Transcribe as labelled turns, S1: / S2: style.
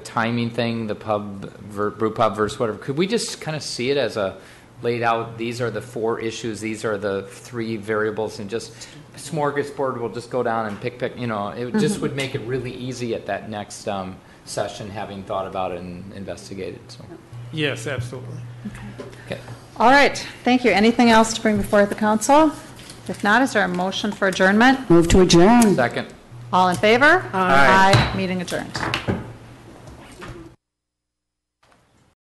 S1: timing thing, the pub, ver, brew pub versus whatever, could we just kind of see it as a laid out, these are the four issues, these are the three variables, and just smorgasbord, we'll just go down and pick, pick, you know, it just would make it really easy at that next, um, session, having thought about it and investigated, so.
S2: Yes, absolutely.
S1: Okay.
S3: All right, thank you. Anything else to bring before the council? If not, is there a motion for adjournment?
S4: Move to adjourn.
S1: Second.
S3: All in favor?
S1: Aye.
S3: Aye, meeting adjourned.